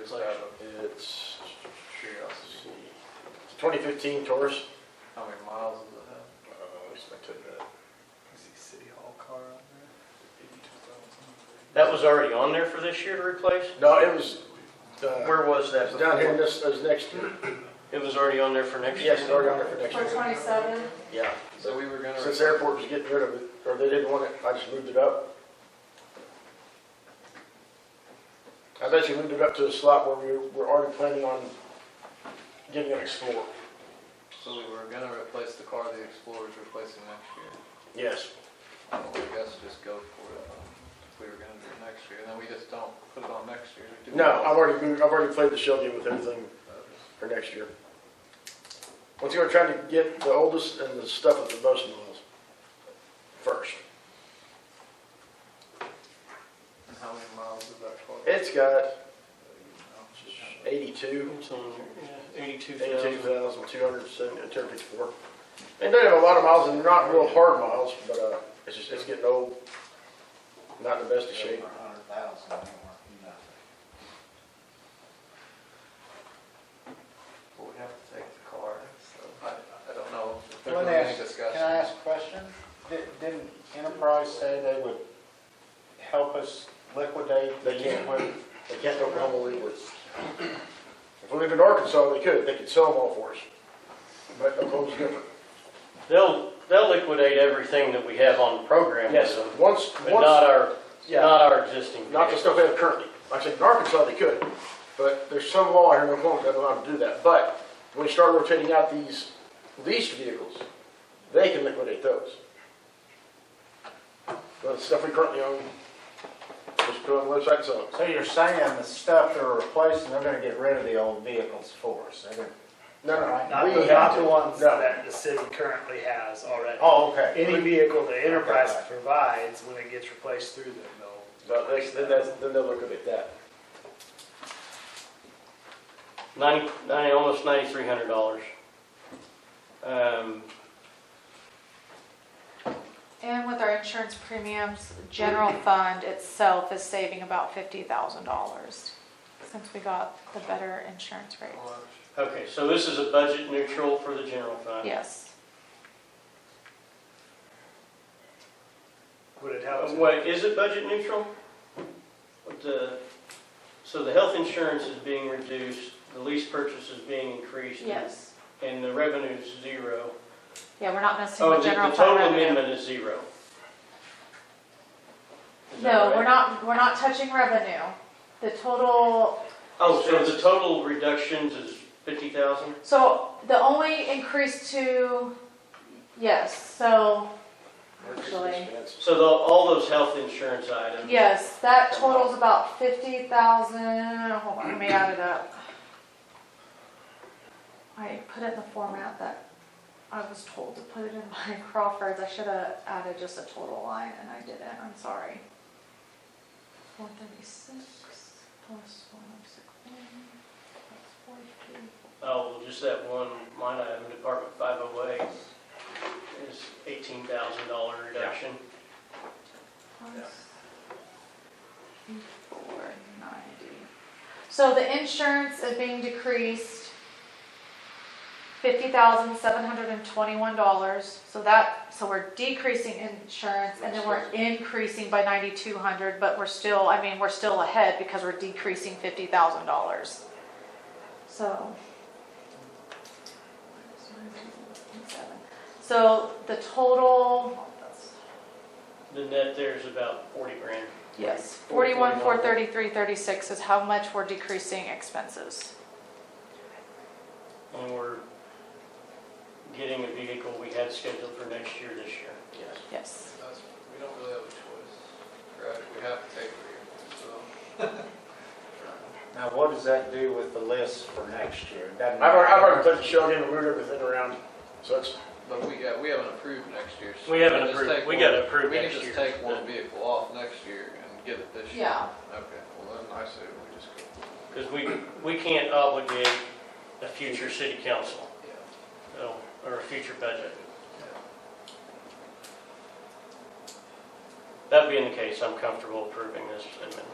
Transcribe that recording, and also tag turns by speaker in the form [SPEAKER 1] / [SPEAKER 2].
[SPEAKER 1] it's like, it's, twenty fifteen Taurus.
[SPEAKER 2] How many miles does it have?
[SPEAKER 1] Uh, what's my tip?
[SPEAKER 2] Is the city hall car out there? Eighty-two thousand.
[SPEAKER 3] That was already on there for this year to replace?
[SPEAKER 1] No, it was, uh,
[SPEAKER 3] Where was that?
[SPEAKER 1] it's down
[SPEAKER 3] before?
[SPEAKER 1] here in this, it was next year.
[SPEAKER 3] It was already on there for next year?
[SPEAKER 1] Yes, it's already on there for next
[SPEAKER 4] For
[SPEAKER 1] year.
[SPEAKER 4] twenty-seven,
[SPEAKER 1] Yeah,
[SPEAKER 2] So we were gonna.
[SPEAKER 1] since the airport was getting rid of it, or they didn't want it, I just moved it up. I bet you moved it up to the slot where we were already planning on getting an Explorer.
[SPEAKER 2] So we were gonna replace the car the Explorer's replacing next year.
[SPEAKER 1] Yes.
[SPEAKER 2] Well, I guess just go for it. um, If we were gonna do it next year, then we just don't put it on next year. do we?
[SPEAKER 1] No, I've already, moved- I've already played the shell game with everything for next year. Once again, we're trying to get the oldest and the stuff with the most miles first.
[SPEAKER 2] And How many miles is that car?
[SPEAKER 1] It's got
[SPEAKER 2] No.
[SPEAKER 1] eighty-two,
[SPEAKER 3] It's on, yeah, eighty-two
[SPEAKER 1] eighty-two
[SPEAKER 3] thousand.
[SPEAKER 1] thousand, two hundred and seventy, two hundred and fifty-four. And they have a lot of miles and not real hard miles, but, uh, it's just, it's getting old, not in the best of shape.
[SPEAKER 5] Over a hundred thousand, they weren't nothing.
[SPEAKER 2] But we have to take the car, so I, I don't know. if there's
[SPEAKER 5] Let me
[SPEAKER 2] been any
[SPEAKER 5] ask-
[SPEAKER 2] discussion.
[SPEAKER 5] Can I ask a question? Di- Didn't Enterprise say they would help us liquidate the
[SPEAKER 1] They can't.
[SPEAKER 5] liquid?
[SPEAKER 1] They can't go Oklahoma legally. If we lived in Arkansas, they could, they could sell them all for us. But Oklahoma's different.
[SPEAKER 3] They'll, they'll liquidate everything that we have on the program with
[SPEAKER 1] Yes,
[SPEAKER 3] them,
[SPEAKER 1] once,
[SPEAKER 3] but not
[SPEAKER 1] once,
[SPEAKER 3] our,
[SPEAKER 1] yeah.
[SPEAKER 3] not our existing.
[SPEAKER 1] not the stuff they have currently. Like I said, in Arkansas, they could, but there's some law here in Oklahoma that allows them to do that. But when you start rotating out these leased vehicles, they can liquidate those. But the stuff we currently own, just put on the website and sell it.
[SPEAKER 5] So you're saying the stuff they're replacing, they're gonna get rid of the old vehicles for us? They're gonna-
[SPEAKER 1] No, no,
[SPEAKER 6] Not
[SPEAKER 1] we
[SPEAKER 6] the,
[SPEAKER 1] have
[SPEAKER 6] not
[SPEAKER 1] to.
[SPEAKER 6] the ones
[SPEAKER 1] No.
[SPEAKER 6] that the city currently has already.
[SPEAKER 5] Oh, okay.
[SPEAKER 6] Any vehicle the enterprise provides, when it gets replaced through them, they'll.
[SPEAKER 1] But they- then that's, then they'll liquidate that.
[SPEAKER 3] Ninety, ninety, almost ninety-three hundred dollars. Um,
[SPEAKER 4] and with our insurance premiums, general fund itself is saving about fifty thousand dollars since we got the better insurance rate.
[SPEAKER 3] Oh.
[SPEAKER 2] Well,
[SPEAKER 3] okay, so this is a budget neutral for the general fund?
[SPEAKER 4] Yes,
[SPEAKER 6] Would it
[SPEAKER 3] Uh,
[SPEAKER 6] help? to-
[SPEAKER 3] Wait, is it budget neutral? What The, so the health insurance is being reduced, the lease purchase is being increased.
[SPEAKER 4] yes.
[SPEAKER 3] And the revenue is zero.
[SPEAKER 4] Yeah, we're not missing
[SPEAKER 3] Oh,
[SPEAKER 4] the
[SPEAKER 3] the
[SPEAKER 4] general
[SPEAKER 3] the
[SPEAKER 4] fund
[SPEAKER 3] total
[SPEAKER 4] revenue.
[SPEAKER 3] amendment is zero. Is that
[SPEAKER 4] No,
[SPEAKER 3] right?
[SPEAKER 4] we're not, we're not touching revenue. The total,
[SPEAKER 3] Oh, so the total reductions is fifty thousand?
[SPEAKER 4] so the only increase to, yes, so, actually,
[SPEAKER 3] So the, all those health insurance items?
[SPEAKER 4] yes, that totals about fifty thousand, hold on, let me add it up. I put it in the format that I was told to put it in my Crawford's. I should have added just a total line and I didn't, I'm sorry. One thirty-six plus one oh six one, that's forty-two.
[SPEAKER 3] Oh, well, just that one line item, Department five oh eight, is eighteen thousand dollar reduction.
[SPEAKER 4] Four ninety. So the insurance is being decreased fifty thousand seven hundred and twenty-one dollars. So that, so we're decreasing insurance and then we're increasing by ninety-two hundred, but we're still, I mean, we're still ahead because we're decreasing fifty thousand dollars. So. So the total,
[SPEAKER 3] The net there is about forty grand.
[SPEAKER 4] Yes, forty-one, four thirty-three, thirty-six is how much we're decreasing expenses.
[SPEAKER 3] And we're getting a vehicle we had scheduled for next year this year.
[SPEAKER 1] Yes.
[SPEAKER 4] Yes.
[SPEAKER 2] that's- We don't really have a choice, correct? We have to take it, so.
[SPEAKER 5] Now, what does that do with the list for next year? It doesn't
[SPEAKER 1] I've already, I've already
[SPEAKER 5] matter.
[SPEAKER 1] put the shell game and moved everything around, so it's,
[SPEAKER 2] But we got, we haven't approved next year's.
[SPEAKER 3] We haven't
[SPEAKER 2] can just
[SPEAKER 3] approved.
[SPEAKER 2] take
[SPEAKER 3] We
[SPEAKER 2] one-
[SPEAKER 3] gotta approve next
[SPEAKER 2] We
[SPEAKER 3] year.
[SPEAKER 2] can just take one vehicle off next year and get it this year.
[SPEAKER 4] Yeah.
[SPEAKER 2] Okay, well then I say we just go.
[SPEAKER 3] Because we, we can't obligate a future city council, so, or a future budget. That being the case, I'm comfortable approving this amendment.